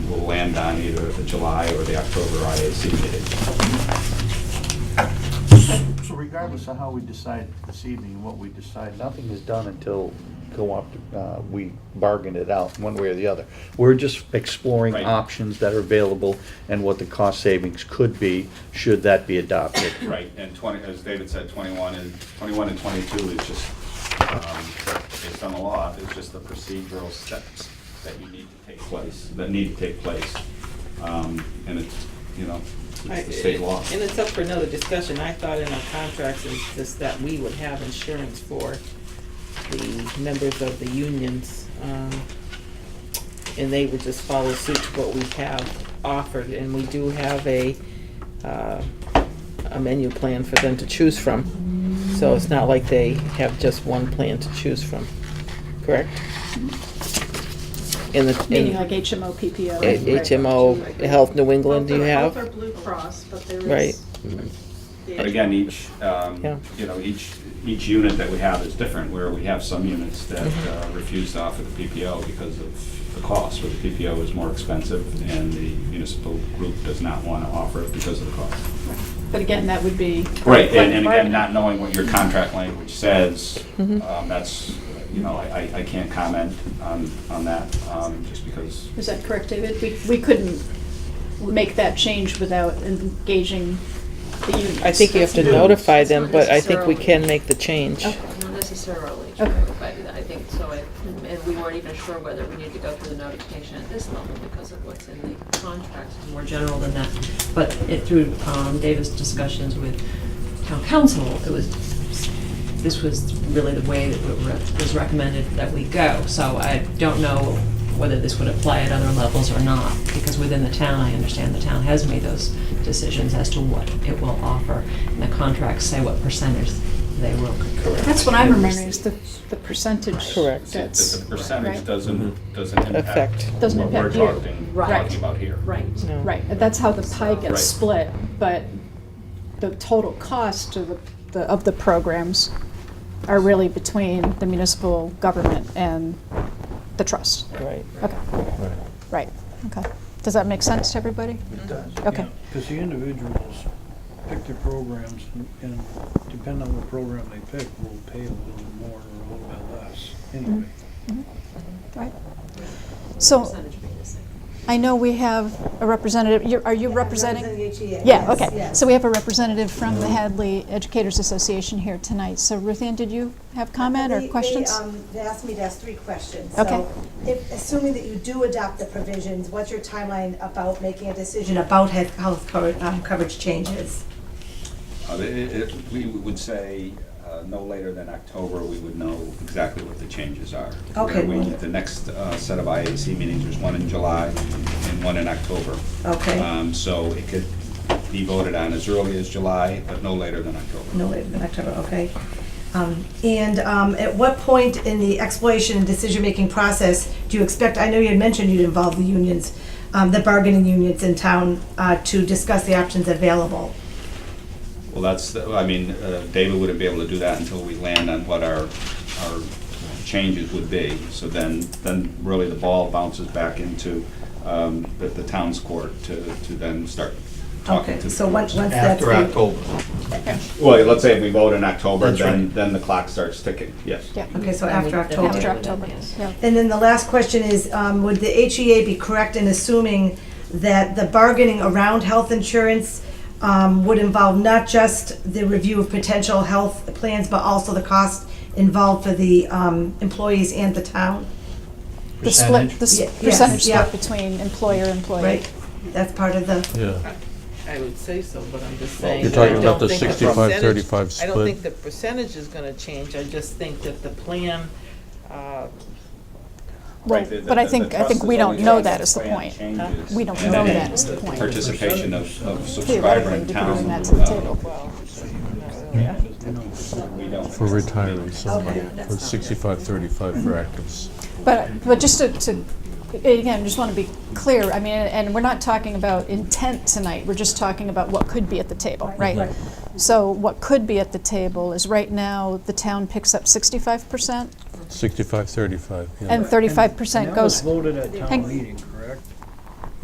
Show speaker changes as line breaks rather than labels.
will land on either the July or the October IAC meeting.
So regardless of how we decide this evening, what we decide,
Nothing is done until co-op, uh, we bargain it out, one way or the other. We're just exploring
Right.
options that are available and what the cost savings could be, should that be adopted.
Right, and 20, as David said, 21 and, 21 and 22 is just, um, based on the law, it's just the procedural steps that you need to take place, that need to take place. Um, And it's, you know, it's the state law.
And it's up for another discussion. I thought in our contracts it's just that we would have insurance for the members of the unions. um, And they would just follow suit to what we have offered. And we do have a, uh, a menu plan for them to choose from. So it's not like they have just one plan to choose from, correct? In the,
Meaning
in
like HMO, PPO.
H- HMO, Health New England, do you have?
Both are Blue Cross, but there is.
Right.
But again, each, um,
Yeah.
you know, each, each unit that we have is different, where we have some units that uh, refuse to offer the PPO because of the cost, where the PPO is more expensive, and the municipal group does not want to offer it because of the cost.
But again, that would be.
Right, and, and again, not knowing what your contract language says, um, that's, you know, I, I- I can't comment on, on that, um, just because,
Is that correct, David? We, we couldn't make that change without engaging the unions.
I think you have to
Yeah.
notify
It's
them,
not
but I think we
necessarily-
can make the change.
Okay.
Not necessarily true,
Okay.
but I think so, I- and we weren't even sure whether we needed to go through the notification at this level because of what's in the contract, It's more general than that. But it, through um, David's discussions with town council, it was, this was really the way that we were- was recommended that we go. So I don't know whether this would apply at other levels or not, because within the town, I understand the town has made those decisions as to what it will offer, and the contracts say what percentage they will.
That's what I'm remembering, is the, the percentage.
Correct.
it's- it's-
That's.
the percentage
right.
doesn't, doesn't impact
Affect.
Doesn't
what we're
impact you.
talking,
Right.
talking about here.
Right.
No.
Right, and that's how the pie
Right.
gets split, but the total cost of the- the, of the programs are really between the municipal government and the trust.
Right.
Okay, right, okay. Does that make sense to everybody?
it does.
Okay.
Because the individuals pick their programs, and- and depending on what program they pick, will pay a little more or a little bit less, anyway.
Right. So
Percentage being the same.
I know we have a representative, you're- are you representing?
E
Yeah, okay. So we have a representative from the Hadley Educators Association here tonight. So Ruthann, did you have comment
They-
or
they,
questions?
um, They asked me to ask three questions.
Okay.
So if- Assuming that you do adopt the provisions, what's your timeline about making a decision about health health co- um, coverage changes?
Uh, it- it- it- We would say uh, no later than October, we would know exactly what the changes are.
Okay.
We- The next uh, set of IAC meetings, there's one in July and one in October.
Okay,
Um, So it could be voted on as early as July, but no later than October.
no later than October, okay. Um, And um, at what point in the exploration and decision-making process do you expect, I know you had mentioned you'd involve the unions, um, the bargaining unions in town uh, to discuss the options available?
Well, that's, the- I mean, uh, David wouldn't be able to do that until we land on what our, our changes would be. So then, then really the ball bounces back into um, the the town's court to, to then start talking
Okay,
to the
so once
boards.
once that's.
After
the-
October.
Well, let's say if we vote in October,
That's
then,
right.
then the clock starts ticking, yes.
Yeah.
Okay, so
Then we- then
after
we
October.
After
Yeah.
October, yeah.
And then the last question is, um, would the HEA be correct in assuming that the bargaining around health insurance um, would involve not just the review of potential health plans, but also the cost involved for the um, employees and the town?
The split, the
Yeah,
s-
yes,
percentage
yeah.
split between employer, employee.
Right? That's part of the,
Yeah,
I would say so, but I'm just saying.
You're
that I
talking about
don't
the
think
65-35
percentage- I don't
split.
think the percentage is gonna change, I just think that the plan, uh,
Well,
Right, the-
but I
the-
think,
the
I think
trust
we
is
don't
only
know
trying
that
to
is the
plan
point.
changes.
We don't
And
know
then
that is the point.
Participation of, of subscriber
Theoretically,
in
you could bring
town, uh,
that to the table.
well, not really.
we don't.
for retirees, somebody,
Okay, that's
for
not good.
65, 35 for actives.
But, but just to, to, again, just want to be clear, I mean, and we're not talking about intent tonight, we're just talking about what could be at the table, right? So what could be at the table is right now, the town picks up sixty-five percent
65, 35, yeah.
and thirty-five percent
And that was
goes.
voted at
Hang-
town meeting,